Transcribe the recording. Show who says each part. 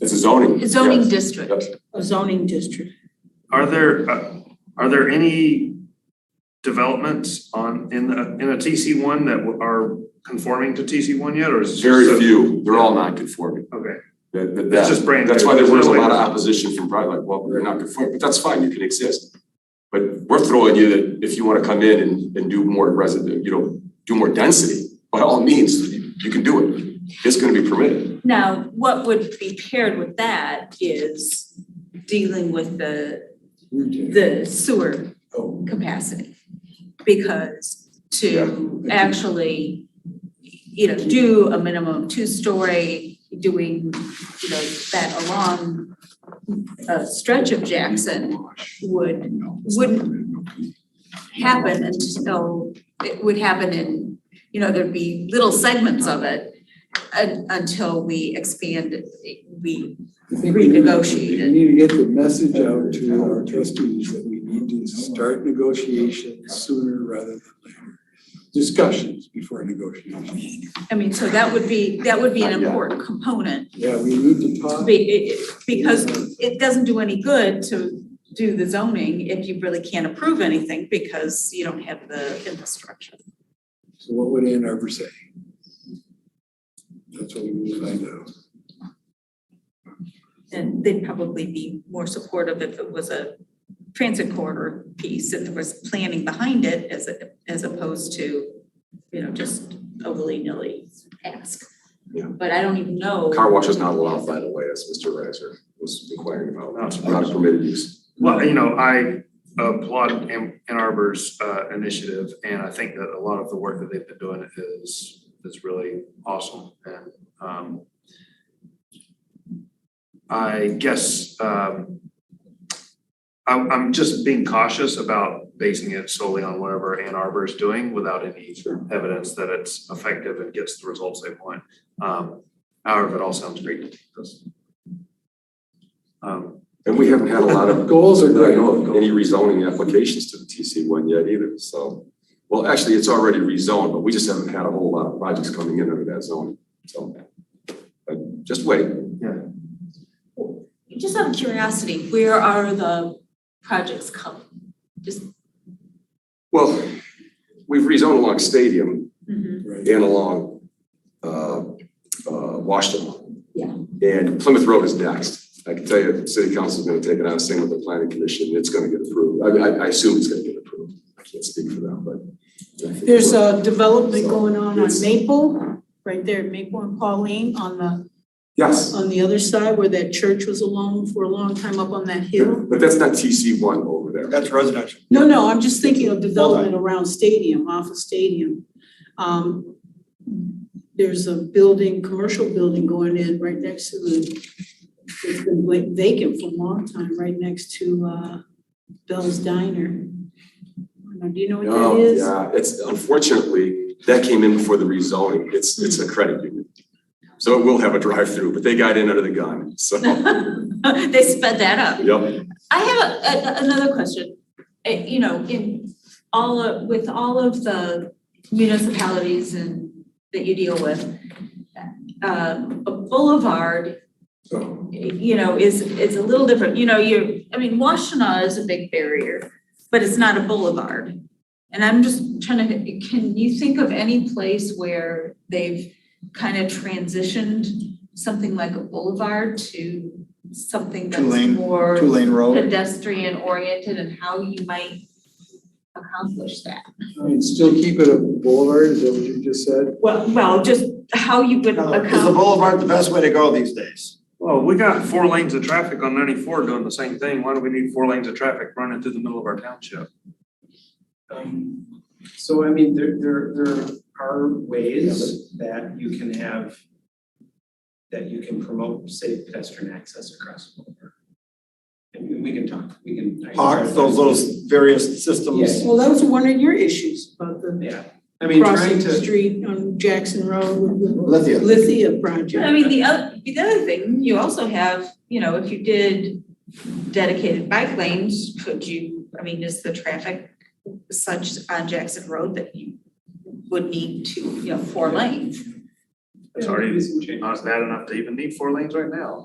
Speaker 1: It's a zoning.
Speaker 2: zoning
Speaker 1: yes.
Speaker 2: district.
Speaker 1: Yes.
Speaker 3: a zoning district.
Speaker 4: Are there, uh, are there any developments on, in the, in a TC one that are conforming to TC one yet, or is? it
Speaker 1: Very
Speaker 4: just a-
Speaker 1: few, they're all non-conforming.
Speaker 4: Okay,
Speaker 1: That- that-
Speaker 4: It's
Speaker 1: that-
Speaker 4: just brand
Speaker 1: That's
Speaker 4: new.
Speaker 1: why there was a
Speaker 4: There's no
Speaker 1: lot of
Speaker 4: way-
Speaker 1: opposition from private, like, well, they're not conforming, but that's fine, you can exist. But we're throwing you that if you wanna come in and, and do more resident, you know, do more density, by all means, you you can do it. It's gonna be permitted.
Speaker 5: Now, what would be paired with that is dealing with the, the sewer
Speaker 1: Oh.
Speaker 5: capacity. Because to
Speaker 1: Yeah.
Speaker 5: actually, you know, do a minimum two-story, doing, you know, that along a stretch of Jackson would, wouldn't happen until, it would happen in, you know, there'd be little segments of it un- until we expand, it, we
Speaker 6: I think we need- We
Speaker 5: renegotiate it.
Speaker 6: need to get the message out to our trustees that we need to start negotiations sooner rather than later. Discussions before negotiations.
Speaker 5: I mean, so that would be, that would be an
Speaker 1: Not yet.
Speaker 5: important component,
Speaker 6: Yeah, we need to talk.
Speaker 5: be- it- it- because it doesn't do any good to do the zoning if you really can't approve anything because you don't have the infrastructure.
Speaker 6: So what would Ann Arbor say? That's what we need to find out.
Speaker 5: And they'd probably be more supportive if it was a transit corridor piece and there was planning behind it as, a- as opposed to, you know, just a willy-nilly ask.
Speaker 1: Yeah.
Speaker 5: But I don't even know.
Speaker 1: Car wash is not allowed, by the way, as Mr. Reiser was inquiring about,
Speaker 4: not surprised.
Speaker 1: not a permitted use.
Speaker 4: Well, you know, I applaud Ann Ann Arbor's uh initiative and I think that a lot of the work that they've been doing is is really awesome and um I guess um I'm I'm just being cautious about basing it solely on whatever Ann Arbor is doing without any evidence that it's effective and gets the results they want. Um however, it all sounds great to us. Um
Speaker 1: And we haven't had a lot of,
Speaker 6: Goals are
Speaker 1: that I
Speaker 6: great.
Speaker 1: know of, any rezoning applications to the TC one yet either, so. Well, actually, it's already rezoned, but we just haven't had a whole lot of projects coming in under that zone, so. uh, Just wait,
Speaker 5: Just out of curiosity, where are the projects coming?
Speaker 1: well, we've rezoned along Stadium
Speaker 6: Right.
Speaker 1: and along uh uh Washington.
Speaker 5: Yeah.
Speaker 1: And Plymouth Road is next, I can tell you, the city council's gonna take it on, same with the planning commission, it's gonna get approved, I mean, I I assume it's gonna get approved, I can't speak for them, but. I think
Speaker 3: There's
Speaker 1: we're-
Speaker 6: uh,
Speaker 3: a development going on on
Speaker 1: Yes.
Speaker 3: Maple, right there, Maple and Pauline on the,
Speaker 1: Yes.
Speaker 3: on the other side where that church was alone for a long time up on that hill.
Speaker 1: But but that's not TC one over there.
Speaker 7: That's residential.
Speaker 3: No, no, I'm just thinking of development around Stadium, off of Stadium. Um, there's a building, commercial building going in right next to the, it's been like vacant for a long time, right next to, uh, Bell's Diner. I don't know, Do you know what
Speaker 1: No,
Speaker 3: that is?
Speaker 1: Oh, yeah, it's unfortunately, that came in before the rezoning. It's it's a credit union. So it will have a drive-through, but they got in under the gun, so,
Speaker 5: They sped that up.
Speaker 1: yep.
Speaker 5: I have a- a- another question. Uh, you know, in all of, with all of the municipalities and that you deal with, uh, a boulevard,
Speaker 1: So,
Speaker 5: you know, is, is a little different, you know, you're, I mean, Washtenaw is a big barrier, but it's not a boulevard. And I'm just trying to, can you think of any place where they've kind of transitioned something like a boulevard to something that's
Speaker 7: Two-lane-
Speaker 5: more
Speaker 7: Two lane road.
Speaker 5: pedestrian oriented and how you might accomplish that?
Speaker 6: I mean, still keep it a boulevard, is that what you just said?
Speaker 5: Well, well, just how you would
Speaker 7: Is the
Speaker 5: accomplish.
Speaker 7: boulevard the best way to go these days?
Speaker 4: Well, we got four lanes of traffic on ninety-four doing the same thing. Why do we need four lanes of traffic running through the middle of our township?
Speaker 8: Um, so I mean, there there there are ways that you can have that you can promote safe pedestrian access across the border. And we can talk, we can. I can
Speaker 7: Park,
Speaker 8: try-
Speaker 7: those those various systems.
Speaker 8: Yes.
Speaker 3: Well, that was one of your issues about the
Speaker 8: Yeah, I mean, trying
Speaker 3: Crossing the
Speaker 8: to,
Speaker 3: street on Jackson Road with the
Speaker 7: Lithia.
Speaker 3: Lithia project.
Speaker 5: I mean, the other, the other thing, you also have, you know, if you did dedicated bike lanes, could you, I mean, is the traffic such on Jackson Road that you would need to, you know, four lanes?
Speaker 4: It's
Speaker 8: Yeah,
Speaker 4: already
Speaker 8: maybe some changes.
Speaker 4: not bad enough to even need four lanes right now.